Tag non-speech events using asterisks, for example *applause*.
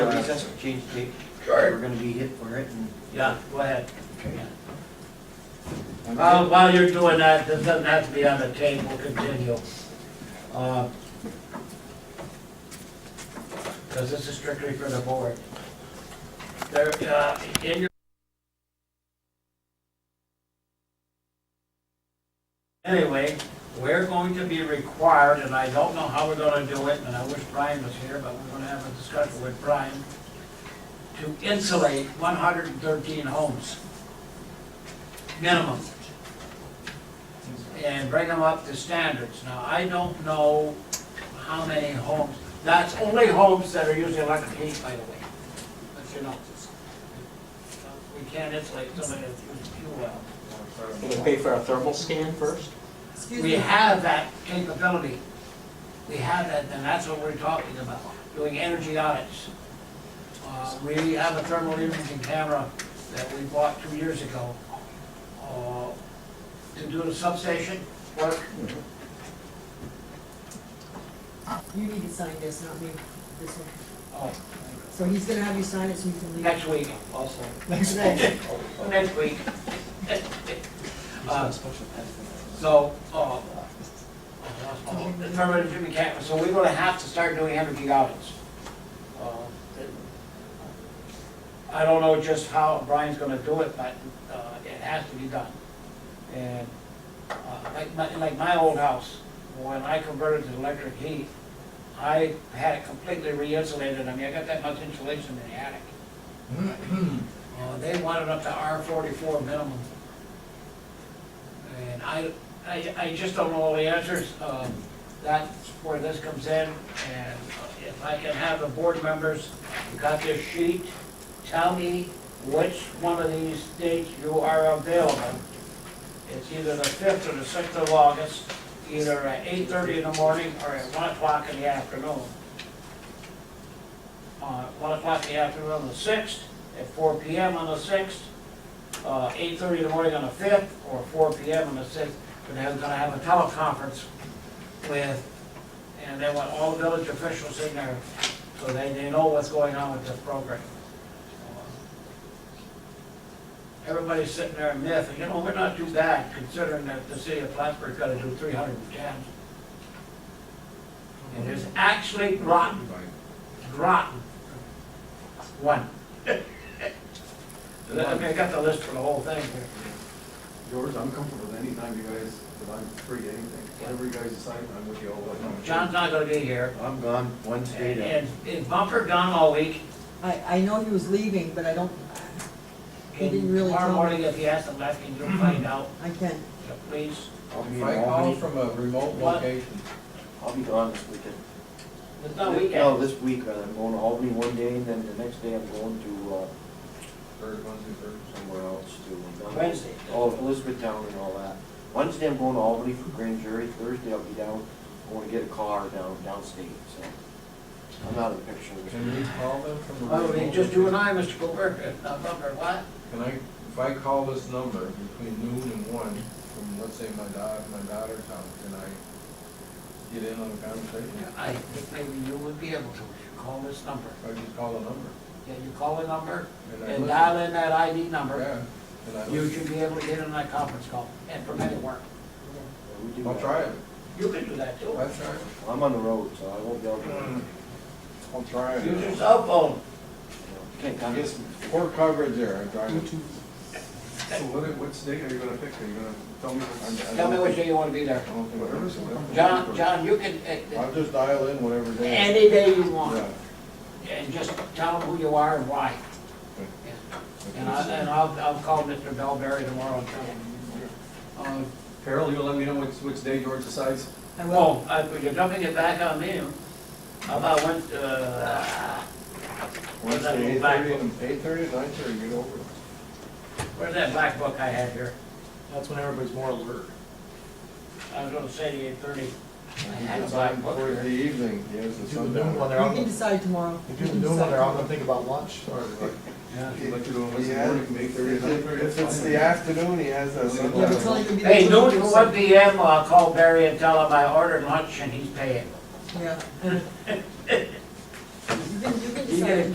recess, change the date. Sure. We're gonna be hit for it and. Yeah, go ahead. Okay. While, Um, while you're doing that, this doesn't have to be on the tape, we'll continue. Uh, Because this is strictly for the board. There, uh, in your. Anyway, we're going to be required, and I don't know how we're gonna do it, and I wish Brian was here, but we're gonna have a discussion with Brian, to insulate one hundred and thirteen homes, minimum and bring them up to standards. Now, I don't know how many homes, that's only homes that are using electric heat, by the way. But you know, we can't insulate somebody that's using fuel oil. Can we pay for a thermal scan first? Excuse We me, have that capability. We have that, and that's what we're talking about, doing energy audits. Uh, We have a thermal imaging camera that we bought two years ago uh, to do the substation work. you need to sign this, not me, this one. Oh, So he's gonna have you sign it so you can leave. Next week also. Next day. Next week. Uh, So, uh, the permanent Jimmy Cat, so we're gonna have to start doing energy audits. Uh, I don't know just how Brian's gonna do it, but uh, it has to be done. And uh, like my, like my old house, when I converted to electric heat, I had it completely re-insulated. I mean, I got that much insulation in the attic. Uh, they wanted up to R forty-four minimum. And I, I, I just don't know all the answers, um, that's where this comes in, and if I can have the board members, you got this sheet, tell me which one of these dates you are available. It's either the fifth or the sixth of August, either at eight-thirty in the morning or at one o'clock in the afternoon. Uh, one o'clock in the afternoon on the sixth, at four P M on the sixth, uh, eight thirty in the morning on the fifth, or four P M on the sixth, but they're gonna have a teleconference with, and they want all village officials in there, so they, they know what's going on with this program. Everybody's sitting there miffing, you know, we're not too bad considering that the city of Plattsburgh's gotta do three hundred and ten. And it's actually rotten, rotten. One. *laughs* I mean, I got the list for the whole thing here. George, I'm comfortable with any time you guys, if I'm free, anything, whatever you guys decide, I'm with you all. the time. John's not gonna be here, I'm gone Wednesday to, and is Bumper gone all week? I, I know he was leaving, but I don't, He And didn't really Tomorrow tell morning, if he has to left, can you Mm-hmm. find out, I can. please? I'll be If in I call Albany. from a remote What? location, I'll be gone this weekend. It's not No, weekend. this week, uh, I'm going to Albany one day and then the next day I'm going to, uh, third, Wednesday, third. somewhere else to. uh, Wednesday. Oh, Elizabethtown and all that. Wednesday I'm going to Albany for grand jury, Thursday I'll be down, I wanna get a car down, downstate, so. I'm out of the picture. Can we call them from a Oh, remote? it's just you and location? I, Mr. Cooper, not Bumper, what? Can I, if I call this number between noon and one, from, let's say, my daughter, my daughter's house, can I get in on the conversation? I think maybe you would be able to, if you call this number. If I just call the number? Yeah, you call the number and I and listen. dial in that ID number, Yeah, and I you listen. should be able to get in that conference call and permit it work. We do I'll that. try it, You can do that too. I'll try it. I'm on the road, so I won't be able to. I'll try it. Use your cell phone. Can't I contact. guess poor coverage there, I drive it. So what, what state are you gonna pick, are you gonna tell me? I- I Tell me don't which think- day you wanna be there. I don't think- whatever's in- John, John, you can, uh, uh, I'll just dial in whatever day. any day you want, Yeah. and just tell them who you are and why. And I, and I'll, I'll call Mr. Bellberry tomorrow and tell him. Uh, Carol, you'll let me know which, which day George decides? I will. Well, Oh, I- you're dumping it back on me. How about when, uh, Where's that Wednesday, little eight back thirty, eight thirty, nine thirty, get over it. where's that black book I had here? That's when everybody's more alert. I was gonna say to you thirty. And I he had a gets black on book for here. the evening, he has the Do the noon when sundown. they're You on, can the- decide tomorrow. they You do the can noon when decide they're on, tomorrow. they think about lunch. Or like- Like you do on He Wednesday has, morning. if it- if it's the afternoon, he has that Yeah, but it's sundown. only gonna be. the Hey, little noon to person. one P M, I'll call Barry and tell him I ordered lunch and he's paying. Yeah. You can, you can You get decide. it.